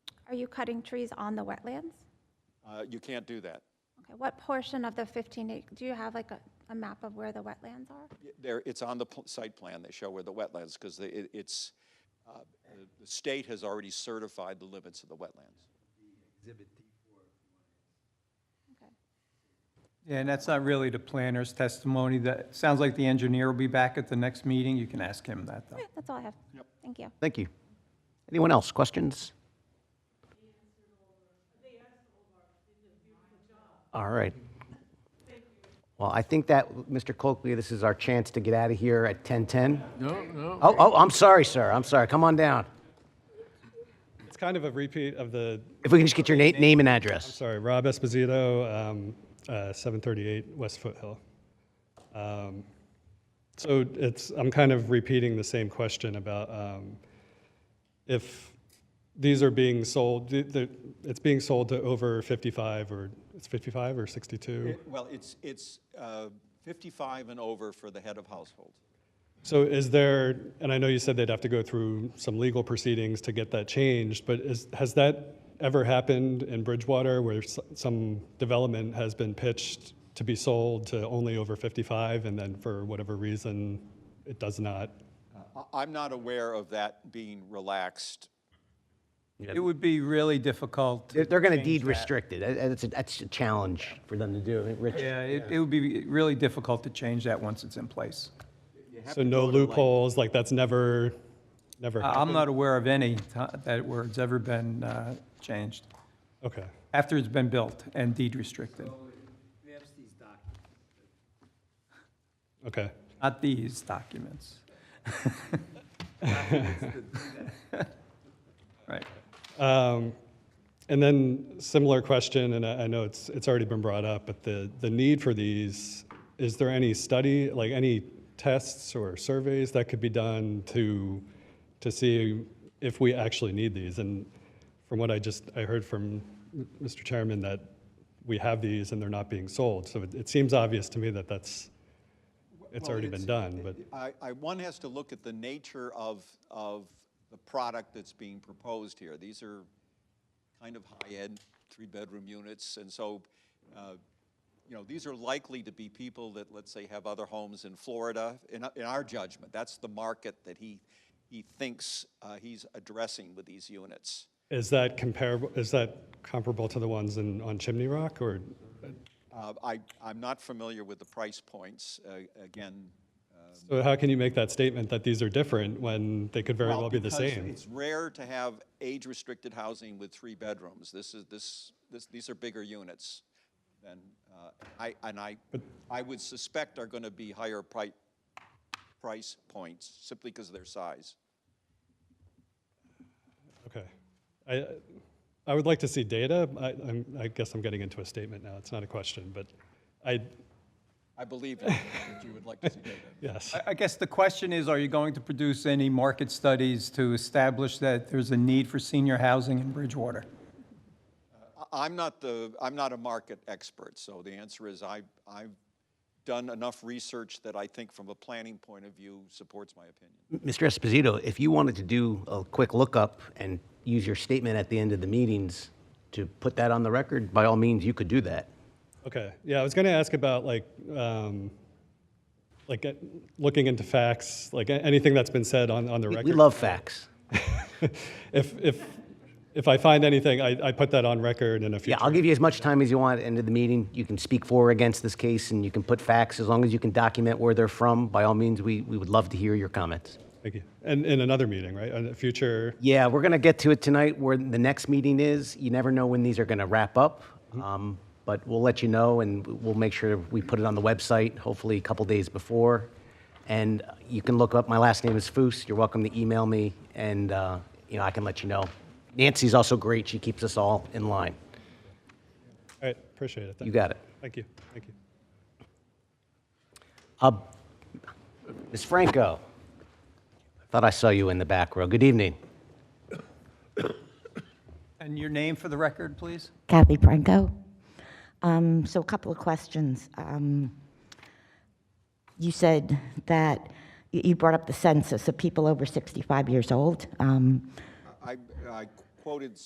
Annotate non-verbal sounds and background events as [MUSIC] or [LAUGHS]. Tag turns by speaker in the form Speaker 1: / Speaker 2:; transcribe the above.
Speaker 1: Are you cutting trees on the wetlands?
Speaker 2: Uh, You can't do that.
Speaker 1: Okay, what portion of the 15, ac- do you have like a, a map of where the wetlands are?
Speaker 2: Y- There, it's on the pl- site plan, they show where the wetlands, because it, it's, uh, the- the state has already certified the limits of the wetlands.
Speaker 1: Okay.
Speaker 3: Yeah, and that's not really the planner's testimony. That, sounds like the engineer will be back at the next meeting. You can ask him that, though.
Speaker 1: Okay, That's all I have. Thank you.
Speaker 4: Thank you. Anyone else? Questions? All right. Well, I think that, Mr. Coakley, this is our chance to get out of here at 10:10.
Speaker 5: No, no.
Speaker 4: Oh, oh, I'm sorry, sir. I'm sorry. Come on down.
Speaker 6: It's kind of a repeat of the,
Speaker 4: If we can just get your na- name and address.
Speaker 6: sorry, Rob Esposito, um, uh, 738 West Foothill. Um, So it's, I'm kind of repeating the same question about um, if these are being sold, th- th- it's being sold to over 55 or, it's 55 or 62?
Speaker 2: Well, it's, it's uh, 55 and over for the head of household.
Speaker 6: So is there, and I know you said they'd have to go through some legal proceedings to get that changed, but is, has that ever happened in Bridgewater where s- some development has been pitched to be sold to only over 55 and then for whatever reason it does not?
Speaker 2: I- I'm not aware of that being relaxed.
Speaker 3: It would be really difficult. to
Speaker 4: They're, they're going to
Speaker 3: change
Speaker 4: deed
Speaker 3: that.
Speaker 4: restricted. Uh, uh, That's a, that's a challenge for them to do. Rich?
Speaker 3: Yeah, it, it would be really difficult to change that once it's in place.
Speaker 6: So no loopholes, like that's never, never
Speaker 3: I- I'm
Speaker 6: happened?
Speaker 3: not aware of any ti- that where it's ever been uh, changed,
Speaker 6: Okay.
Speaker 3: after it's been built and deed restricted.
Speaker 6: Okay.
Speaker 3: Not these documents. [LAUGHS] Right.
Speaker 6: Um, And then similar question, and I I know it's, it's already been brought up, but the, the need for these, is there any study, like any tests or surveys that could be done to, to see if we actually need these? And from what I just, I heard from Mr. Chairman that we have these and they're not being sold. So it, it seems obvious to me that that's, it's
Speaker 2: Well,
Speaker 6: already been done, but.
Speaker 2: I, I, one has to look at the nature of, of the product that's being proposed here. These are kind of high-end, three-bedroom units, and so, uh, you know, these are likely to be people that, let's say, have other homes in Florida, in, in our judgment. That's the market that he, he thinks uh, he's addressing with these units.
Speaker 6: Is that comparable, is that comparable to the ones in, on Chimney Rock or?
Speaker 2: Uh, I, I'm not familiar with the price points. Uh, Again,
Speaker 6: So how can you make that statement that these are different when they could very well, be the
Speaker 2: because
Speaker 6: same?
Speaker 2: It's rare to have age-restricted housing with three bedrooms. This is, this, this, these are bigger units than, uh, I, and I, I would suspect are gonna be higher pri- price points, simply because of their size.
Speaker 6: Okay. I, I would like to see data. I, I'm, I guess I'm getting into a statement now. It's not a question, but I,
Speaker 2: I believe you, that you would like to see
Speaker 6: [LAUGHS]
Speaker 2: data.
Speaker 6: yes.
Speaker 3: I- I guess the question is, are you going to produce any market studies to establish that there's a need for senior housing in Bridgewater?
Speaker 2: I- I'm not the, I'm not a market expert, so the answer is I, I've done enough research that I think from a planning point of view supports my opinion.
Speaker 4: Mr. Esposito, if you wanted to do a quick lookup and use your statement at the end of the meetings to put that on the record, by all means, you could do that.
Speaker 6: Okay. Yeah, I was going to ask about like, um, like uh, looking into facts, like a- anything that's been said on, on the record.
Speaker 4: We love facts.
Speaker 6: if, if, if I find anything, I, I put that on record in a future.
Speaker 4: Yeah, I'll give you as much time as you want at the end of the meeting. You can speak for or against this case, and you can put facts, as long as you can document where they're from. By all means, we, we would love to hear your comments.
Speaker 6: Thank you. And in another meeting, right? In a future.
Speaker 4: Yeah, we're going to get to it tonight, where the next meeting is. You never know when these are going to wrap up, um, but we'll let you know, and we'll make sure we put it on the website, hopefully a couple days before. And you can look up, my last name is Foos. You're welcome to email me, and, uh, you know, I can let you know. Nancy's also great. She keeps us all in line.
Speaker 6: All right. Appreciate it.
Speaker 4: You got it.
Speaker 6: Thank you. Thank you.
Speaker 4: Uh, Ms. Franco, thought I saw you in the back row. Good evening.
Speaker 3: And your name for the record, please?
Speaker 7: Kathy Franco. Um, So a couple of questions. Um, You said that, you you brought up the census of people over 65 years old. Um,
Speaker 2: I, I quoted